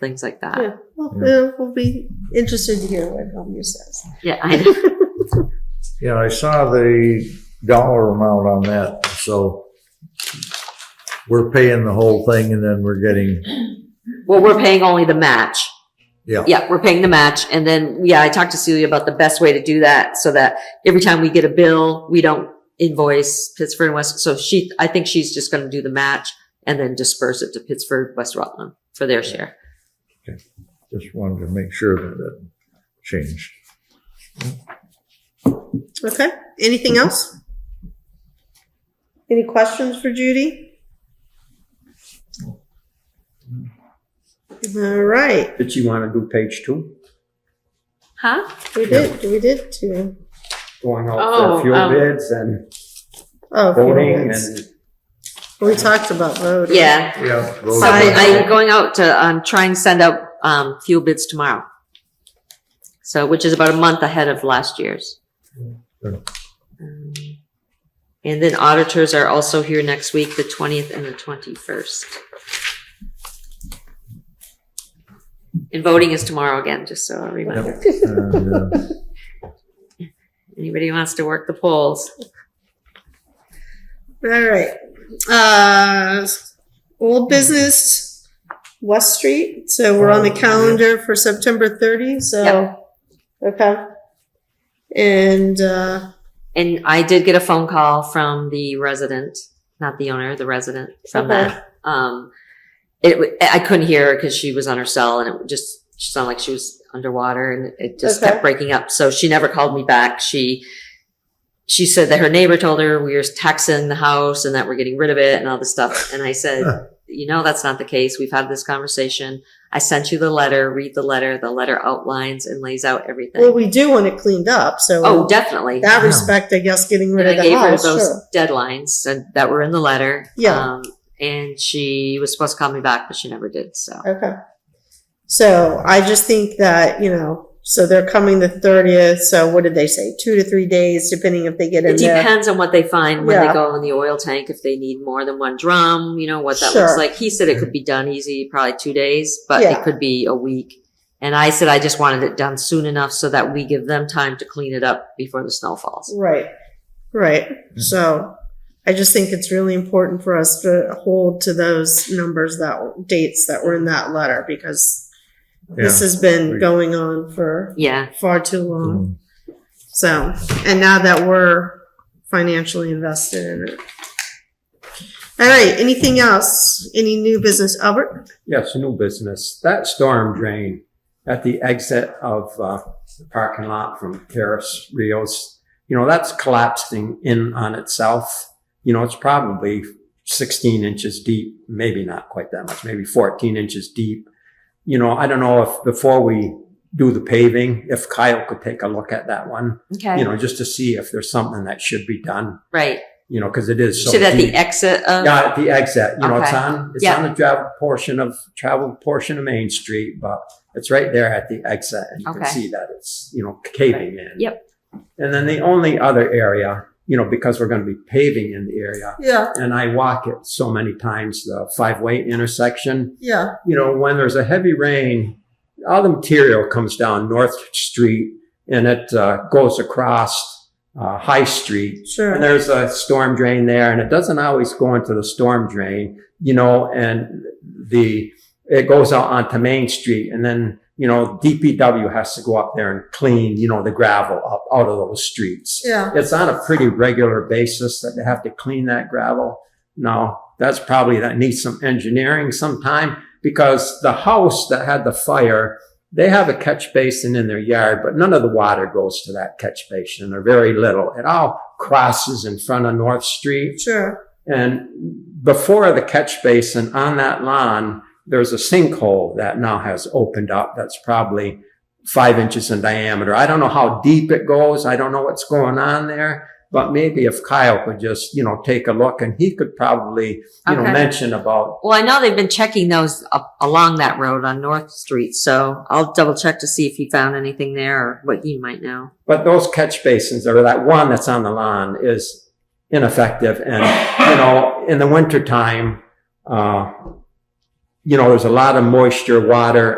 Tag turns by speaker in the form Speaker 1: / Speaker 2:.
Speaker 1: things like that.
Speaker 2: Yeah. Well, uh, we'll be interested to hear what Elmira says.
Speaker 1: Yeah, I know.
Speaker 3: Yeah, I saw the dollar amount on that, so we're paying the whole thing and then we're getting,
Speaker 1: Well, we're paying only the match.
Speaker 3: yeah.
Speaker 1: Yeah, we're paying the match. And then, yeah, I talked to Celia about the best way to do that so that every time we get a bill, we don't invoice Pittsford and West. So she, I think she's just going to do the match and then disperse it to Pittsford, West Rutland for their share.
Speaker 3: Just wanted to make sure that it changed.
Speaker 2: Okay. Anything else? Any questions for Judy? All right.
Speaker 4: Did you want to do page two?
Speaker 1: Huh?
Speaker 2: We did. We did too.
Speaker 4: Going
Speaker 1: Oh,
Speaker 4: out for fuel
Speaker 1: um,
Speaker 4: bids and
Speaker 2: Oh,
Speaker 4: voting
Speaker 2: yes.
Speaker 4: and
Speaker 2: we talked about voting.
Speaker 1: Yeah.
Speaker 3: Yeah.
Speaker 1: So I, I'm going out to, um, try and send out, um, fuel bids tomorrow. So, which is about a month ahead of last year's.
Speaker 3: Yeah.
Speaker 1: Um, And then auditors are also here next week, the 20th and the 21st. And voting is tomorrow again, just so a reminder.
Speaker 3: And, uh,
Speaker 1: Anybody who wants to work the polls?
Speaker 2: All right. Uh, old business, West Street. So we're on
Speaker 4: Oh,
Speaker 2: the calendar for September 30. So, okay. And, uh,
Speaker 1: And I did get a phone call from the resident, not the owner, the resident from
Speaker 2: Okay.
Speaker 1: that. Um, it, wa- I couldn't hear her because she was on her cell and it just she sounded like she was underwater and it just
Speaker 2: Okay.
Speaker 1: kept breaking up. So she never called me back. She, she said that her neighbor told her we were taxing the house and that we're getting rid of it and all this stuff. And I said, you know, that's not the case. We've had this conversation. I sent you the letter, read the letter. The letter outlines and lays out everything.
Speaker 2: well, we do want it cleaned up. So,
Speaker 1: oh, definitely.
Speaker 2: that respect, I guess, getting rid
Speaker 1: And I
Speaker 2: of the
Speaker 1: gave her
Speaker 2: house.
Speaker 1: those
Speaker 2: Oh, sure.
Speaker 1: deadlines and, that were in the letter.
Speaker 2: Yeah.
Speaker 1: Um, and she was supposed to call me back, but she never did. So
Speaker 2: Okay. So I just think that, you know, so they're coming the 30th. So what did they say? Two to three days, depending if they get in
Speaker 1: it
Speaker 2: there.
Speaker 1: depends on what they find when
Speaker 2: Yeah.
Speaker 1: they go in the oil tank, if they need more than one drum, you know, what that
Speaker 2: Sure.
Speaker 1: looks like. He said it could be done easy, probably two days, but
Speaker 2: Yeah.
Speaker 1: it could be a week. And I said I just wanted it done soon enough so that we give them time to clean it up before the snow falls.
Speaker 2: Right, right. So I just think it's really important for us to hold to those numbers that dates that were in that letter because this
Speaker 3: yeah.
Speaker 2: has been
Speaker 3: Agreed.
Speaker 2: going on for
Speaker 1: Yeah.
Speaker 2: far too
Speaker 1: um,
Speaker 2: long.
Speaker 3: Mm,
Speaker 2: So, and now that we're financially invested in it. All right, anything else? Any new business, Albert?
Speaker 4: yes, new business. That storm drain at the exit of uh, the parking lot from Terrace Rios, you know, that's collapsing in on itself. You know, it's probably 16 inches deep, maybe not quite that much, maybe 14 inches deep. You know, I don't know if before we do the paving, if Kyle could take a look at that one,
Speaker 1: Okay.
Speaker 4: you know, just to see if there's something that should be done,
Speaker 1: right.
Speaker 4: you know, because it is so
Speaker 1: So that
Speaker 4: deep.
Speaker 1: the exit of,
Speaker 4: Yeah, at the exit, you know, it's
Speaker 1: Okay.
Speaker 4: on, it's
Speaker 1: Yeah.
Speaker 4: on the travel portion of, travel portion of Main Street, but it's right there at the exit. and You can
Speaker 1: Okay.
Speaker 4: see that it's, you know, caving in.
Speaker 1: Yep.
Speaker 4: And then the only other area, you know, because we're going to be paving in the area,
Speaker 2: Yeah,
Speaker 4: and I walk it so many times, the five-way intersection,
Speaker 2: yeah,
Speaker 4: you know, when there's a heavy rain, all the material comes down North Street and it uh, goes across uh, High Street and
Speaker 2: sure.
Speaker 4: there's a storm drain there and it doesn't always go into the storm drain, you know, and the, it goes out onto Main Street and then, you know, DPW has to go up there and clean, you know, the gravel up out of those streets.
Speaker 2: Yeah,
Speaker 4: It's on a pretty regular basis that they have to clean that gravel. Now, that's probably that needs some engineering sometime because the house that had the fire, they have a catch basin in their yard, but none of the water goes to that catch basin or very little. It all crosses in front of North Street.
Speaker 2: sure.
Speaker 4: And before the catch basin on that lawn, there's a sinkhole that now has opened up that's probably five inches in diameter. I don't know how deep it goes. I don't know what's going on there, but maybe if Kyle could just, you know, take a look and he could probably, you know,
Speaker 1: Okay.
Speaker 4: mention about,
Speaker 1: well, I know they've been checking those up along that road on North Street. So I'll double check to see if he found anything there or what you might know.
Speaker 4: but those catch basins or that one that's on the lawn is ineffective. And, you know, in the wintertime, uh, you know, there's a lot of moisture, water